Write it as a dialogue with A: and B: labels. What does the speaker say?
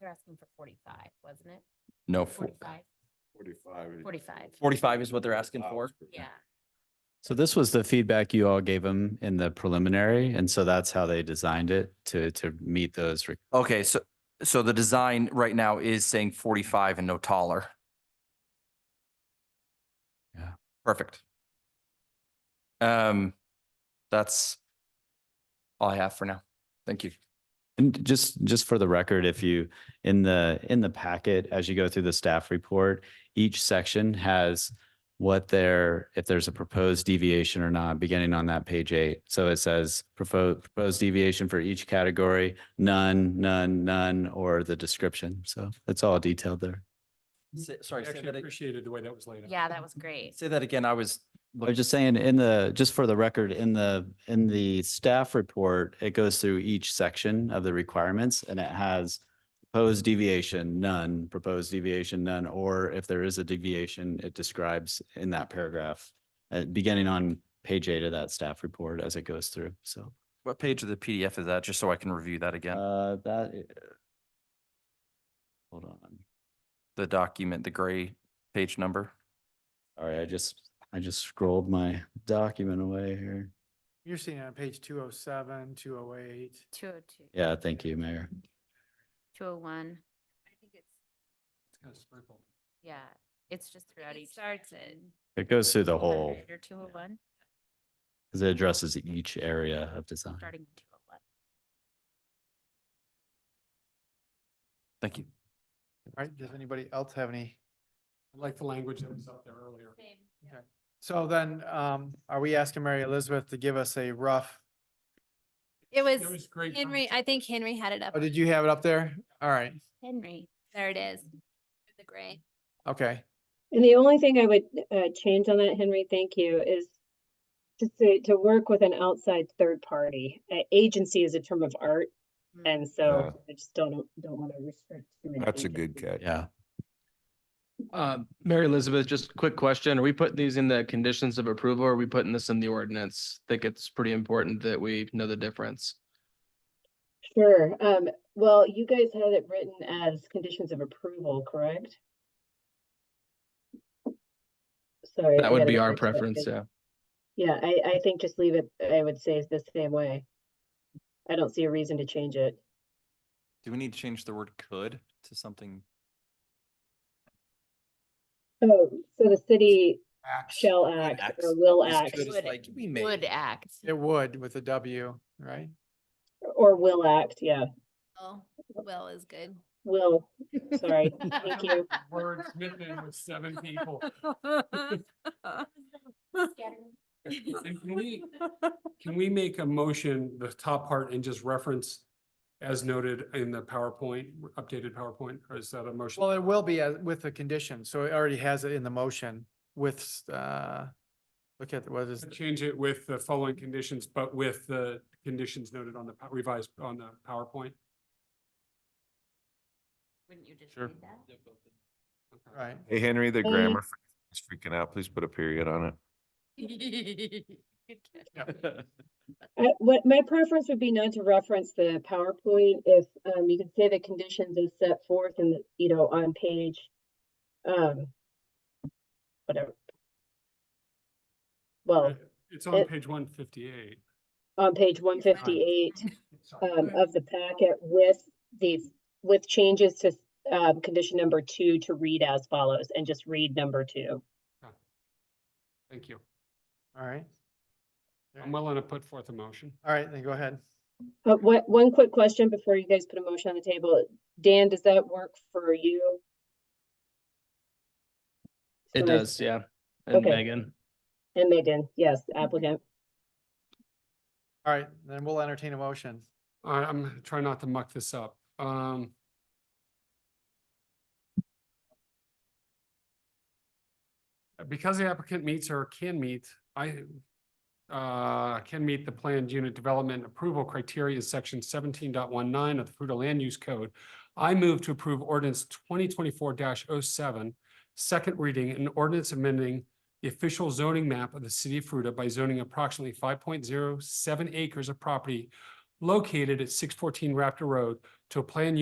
A: You're asking for forty-five, wasn't it?
B: No, four-
A: Forty-five,
C: Forty-five. is-
A: forty-five,
B: forty-five is what they're asking for.
A: yeah.
D: So this was the feedback you all gave them in the preliminary, and so that's how they designed it to, to meet those. re-
B: Okay, so, so the design right now is saying forty-five and no taller.
D: Yeah.
B: Perfect. Um, that's all I have for now. Thank you.
D: And just, just for the record, if you, in the, in the packet, as you go through the staff report, each section has what their, if there's a proposed deviation or not, beginning on that page eight. So it says proposed, proposed deviation for each category, none, none, none, or the description. So it's all detailed there.
B: Say-
E: I
B: Sorry, say
E: actually
B: that, ag-
E: appreciated the way that was laid out.
A: Yeah, that was great.
B: say that again. I was,
D: I was just saying in the, just for the record, in the, in the staff report, it goes through each section of the requirements and it has proposed deviation, none, proposed deviation, none, or if there is a deviation, it describes in that paragraph, uh, beginning on page eight of that staff report as it goes through. So,
B: what page of the PDF is that? Just so I can review that again.
D: uh, that. i- Hold on.
B: The document, the gray page number.
D: Sorry, I just, I just scrolled my document away here.
F: You're seeing it on page two oh seven, two oh eight.
A: Two oh two.
D: Yeah, thank you, Mayor.
A: Two oh one,
G: I think it's,
E: It's kinda sprinkled.
A: yeah, it's just
G: I
A: throughout
G: think
A: each.
G: it starts at
D: It goes through the whole.
A: Or two oh one,
D: Because it addresses each area of design.
A: starting with two oh one.
B: Thank you.
F: All right, does anybody else have any?
E: I like the language that was up there earlier.
F: So then, um, are we asking Mary Elizabeth to give us a rough,
G: It
E: It
G: was
E: was great.
G: Henry, I think Henry had it up.
F: oh, did you have it up there? All right,
G: Henry, there it is. The gray.
F: okay.
H: And the only thing I would uh, change on that, Henry, thank you, is just to, to work with an outside third party. A- Agency is a term of art,
I: Mm.
H: and
C: Yeah.
H: so I just don't, don't want to restrict. to an
C: That's a
H: agency.
C: good catch.
D: Yeah.
I: Uh, Mary Elizabeth, just a quick question. Are we putting these in the conditions of approval or are we putting this in the ordinance? I think it's pretty important that we know the difference.
H: Sure. Um, well, you guys had it written as conditions of approval, correct? Sorry. I
I: That would
H: gotta
I: be
H: get
I: our
H: back to that
I: preference,
H: page.
I: yeah.
H: Yeah, I, I think just leave it, I would say is the same way. I don't see a reason to change it.
B: Do we need to change the word could to something?
H: Oh, so the city
E: Acts.
H: shall act
B: acts
H: or will
B: Is
H: act
B: could is
A: Would-
B: like, we may.
A: Would act.
F: It would with a W, right?
H: or will act, yeah,
G: Oh, well is good.
H: will, sorry, thank you.
E: Wordsmithing with seven people. And Can we can we make a motion, the top part, and just reference as noted in the PowerPoint, updated PowerPoint, or is that a motion?
F: Well, it will be uh, with the condition, so it already has it in the motion with, uh, look at, what is,
E: To Change it with the following conditions, but with the conditions noted on the pow- revised, on the PowerPoint.
A: Wouldn't you just
E: Sure.
A: read that?
E: Okay.
F: right?
C: Hey, Henry, the
H: Hey.
C: grammar is freaking out. Please put a period on it.
H: I, Uh, what, my preference would be not to reference the PowerPoint if, um, you can say the conditions is set forth in, the you know, on page, um, whatever.
E: Hmm.
H: Well,
E: It's on
H: Oh, it-
E: page one fifty-eight.
H: on page one fifty-eight, um, of the packet with these, with changes to, um, condition number two to read as follows, and just read number two.
E: Thank you.
F: All right. All
E: I'm
F: right,
E: willing to put forth a motion.
F: All right, then go ahead.
H: Uh, what, one quick question before you guys put a motion on the table. Dan, does that work for you?
I: It
H: So I-
I: does, yeah. And
H: Okay.
I: Megan,
H: And Megan, yes, applicant.
F: All right, then we'll entertain a motion.
E: I, I'm trying not to muck this up. Um. Because the applicant meets or can meet, I, uh, can meet the planned unit development approval criteria in section 17.19 of the Fruta Land Use Code. I move to approve ordinance twenty twenty-four 7 second reading, an ordinance amending the official zoning map of the city of Fruta by zoning approximately five point zero seven acres of property located at six fourteen Raptor Road to a planned